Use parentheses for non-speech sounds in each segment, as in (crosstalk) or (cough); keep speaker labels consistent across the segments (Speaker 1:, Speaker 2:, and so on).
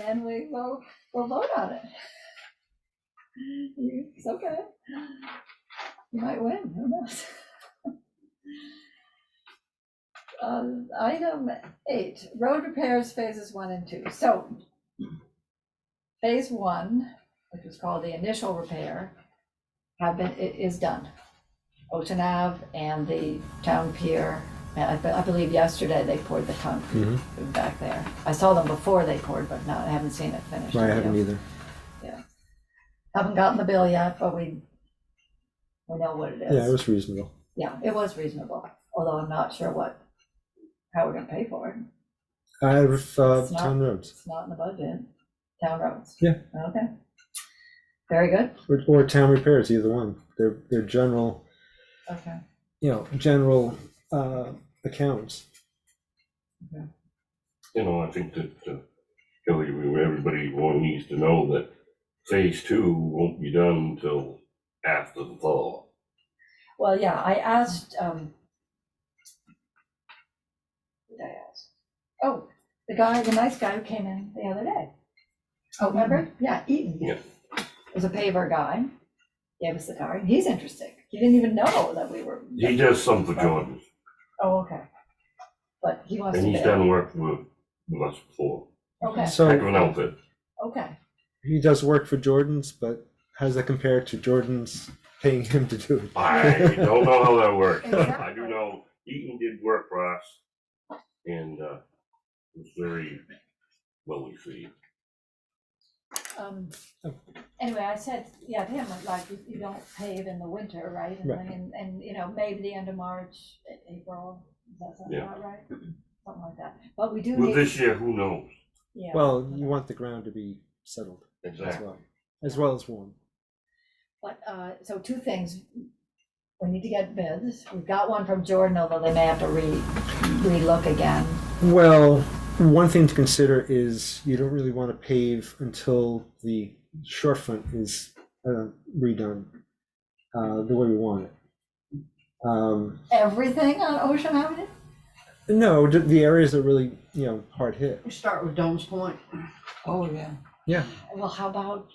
Speaker 1: and we will, we'll vote on it. You- It's okay. You might win, who knows? (laughs) Um, Item eight, road repairs phases one and two. So phase one, which is called the initial repair, have been, i- is done. Ocean Ave and the town pier, and I be- I believe yesterday they poured the concrete
Speaker 2: Mm-hmm.
Speaker 1: back there. I saw them before they poured, but not, I haven't seen it finished.
Speaker 2: I
Speaker 1: Have
Speaker 2: haven't
Speaker 1: you?
Speaker 2: either.
Speaker 1: Haven't gotten the bill yet, but we, we know what it is.
Speaker 2: Yeah, it was reasonable.
Speaker 1: Yeah, it was reasonable, although I'm not sure what, how we're gonna pay for it.
Speaker 2: I have uh,
Speaker 1: It's not-
Speaker 2: town roads
Speaker 1: It's not in the budget. Town roads?
Speaker 2: Yeah.
Speaker 1: Okay. Very good.
Speaker 2: or, or town repairs, either one. They're, they're general,
Speaker 1: Okay.
Speaker 2: you know, general uh, accounts.
Speaker 3: You know, I think that, uh, Kelly, we- everybody want- needs to know that phase two won't be done until after the fall.
Speaker 1: Well, yeah, I asked, um, who did I ask? Oh, the guy, the nice guy who came in the other day. Oh, remember? Yeah, Eaton.
Speaker 3: Yeah.
Speaker 1: Was a paver guy, gave us the car, and he's interesting. He didn't even know that we were.
Speaker 3: He does some for Jordan,
Speaker 1: Oh, okay. But he wants to.
Speaker 3: and he's
Speaker 1: bid.
Speaker 3: done work with with us before.
Speaker 1: Okay,
Speaker 3: Heck
Speaker 2: So
Speaker 3: of an outfit.
Speaker 1: okay.
Speaker 2: he does work for Jordan's, but how does that compare to Jordan's paying him to do it?
Speaker 3: I don't know how that works. (laughs) I
Speaker 1: Exactly.
Speaker 3: do know Eaton did work for us and, uh, was very well received.
Speaker 1: Um, Anyway, I said, yeah, to him, like, you- you don't pave in the winter, right? And,
Speaker 2: Right.
Speaker 1: and, and, you know, maybe the end of March, A- April, does that sound
Speaker 3: Yeah.
Speaker 1: about right? Something like that, but we do
Speaker 3: Well,
Speaker 1: need,
Speaker 3: this year, who knows?
Speaker 1: yeah.
Speaker 2: Well, you want the ground to be settled as well, as well as warm.
Speaker 1: But, uh, so two things, we need to get bids, we've got one from Jordan, although they may have to re, relook again.
Speaker 2: Well, one thing to consider is you don't really want to pave until the shorefront is uh, redone uh, the way we want it. Um,
Speaker 1: Everything on Ocean Avenue?
Speaker 2: no, the- the areas that really you know hard hit.
Speaker 4: We start with Dome's Point
Speaker 1: Oh, yeah.
Speaker 2: Yeah.
Speaker 1: Well, how about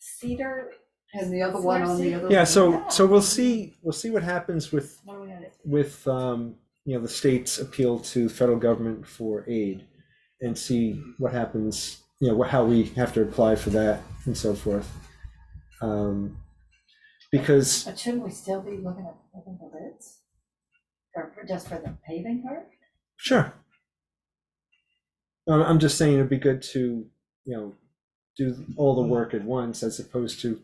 Speaker 1: Cedar,
Speaker 4: and the other one on the other.
Speaker 2: Yeah, so so we'll see we'll see what happens with
Speaker 1: what are we gonna do?
Speaker 2: with um, you know the state's appeal to federal government for aid, and see what happens. You know wh- how we have to apply for that and so forth. Um, because
Speaker 1: But shouldn't we still be looking at, looking for bids? Or for- just for the paving part?
Speaker 2: Sure. I'm, I'm just saying it'd be good to, you know, do all the work at once as opposed to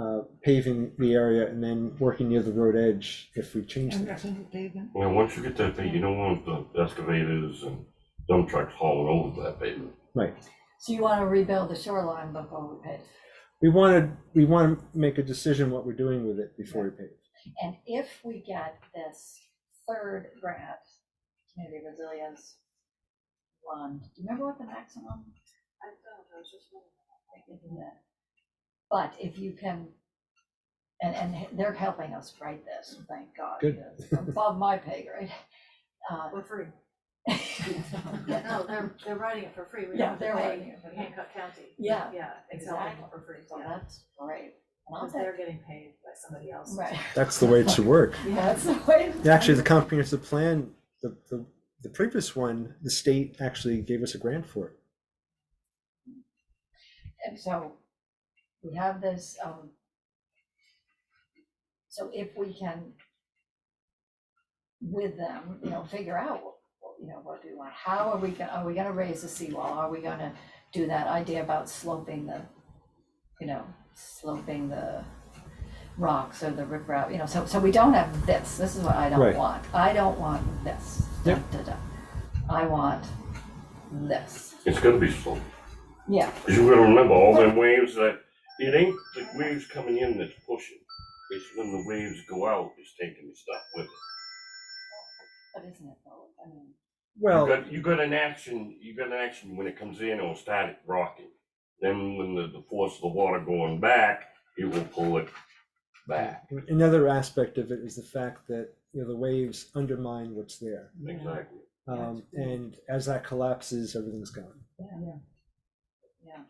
Speaker 2: uh, paving the area and then working near the road edge if we change things.
Speaker 5: Oh,
Speaker 3: Well, once you get that thing, you don't want the excavators and dump trucks hauling over that pavement.
Speaker 2: Right.
Speaker 1: So you wanna rebuild the shoreline before we pave?
Speaker 2: We wanted, we want to make a decision what we're doing with it before we pave.
Speaker 1: And if we get this third grant, community resilience one, do you remember what the maximum? I don't know, just But if you can, and, and they're helping us write this, thank God.
Speaker 2: Good.
Speaker 1: it's Above my pay grade. Uh,
Speaker 5: For free.
Speaker 1: yeah.
Speaker 5: No, they're, they're writing it for free. We
Speaker 1: Yeah,
Speaker 5: don't have to
Speaker 1: they're
Speaker 5: pay
Speaker 1: writing it for free.
Speaker 5: Hancock County.
Speaker 1: (laughs) Yeah,
Speaker 5: Yeah, exactly,
Speaker 1: exactly.
Speaker 5: for free,
Speaker 1: So
Speaker 5: yeah.
Speaker 1: that's great. And I'll
Speaker 5: Because
Speaker 1: say-
Speaker 5: they're getting paid by somebody
Speaker 1: (laughs)
Speaker 5: else.
Speaker 1: Right,
Speaker 2: That's the way it should work.
Speaker 1: that's the way.
Speaker 2: Actually, the comprehensive plan, the, the, the previous one, the state actually gave us a grant for it.
Speaker 1: And so we have this, um, so if we can, with them, you know, figure out, what- what, you know, what do we want? How are we gonna, are we gonna raise the seawall? Are we gonna do that idea about sloping the, you know, sloping the rocks or the riprap, you know, so, so we don't have this. This is what I don't
Speaker 2: Right.
Speaker 1: want. I don't want this.
Speaker 2: Yep.
Speaker 1: Da, da, da. I want this.
Speaker 3: It's gonna be slow.
Speaker 1: Yeah.
Speaker 3: Cause you gotta remember, all them waves that, it ain't the waves coming in that's pushing. It's when the waves go out, it's taking the stuff with it.
Speaker 1: But isn't it though? I mean,
Speaker 3: You
Speaker 2: Well,
Speaker 3: got, you got an action, you got an action when it comes in, it'll start it rocking. Then when the, the force of the water going back, it will pull it back.
Speaker 2: another aspect of it is the fact that, you know, the waves undermine what's there.
Speaker 3: Exactly.
Speaker 2: Um, and as that collapses, everything's gone.
Speaker 1: yeah. Yeah. yeah.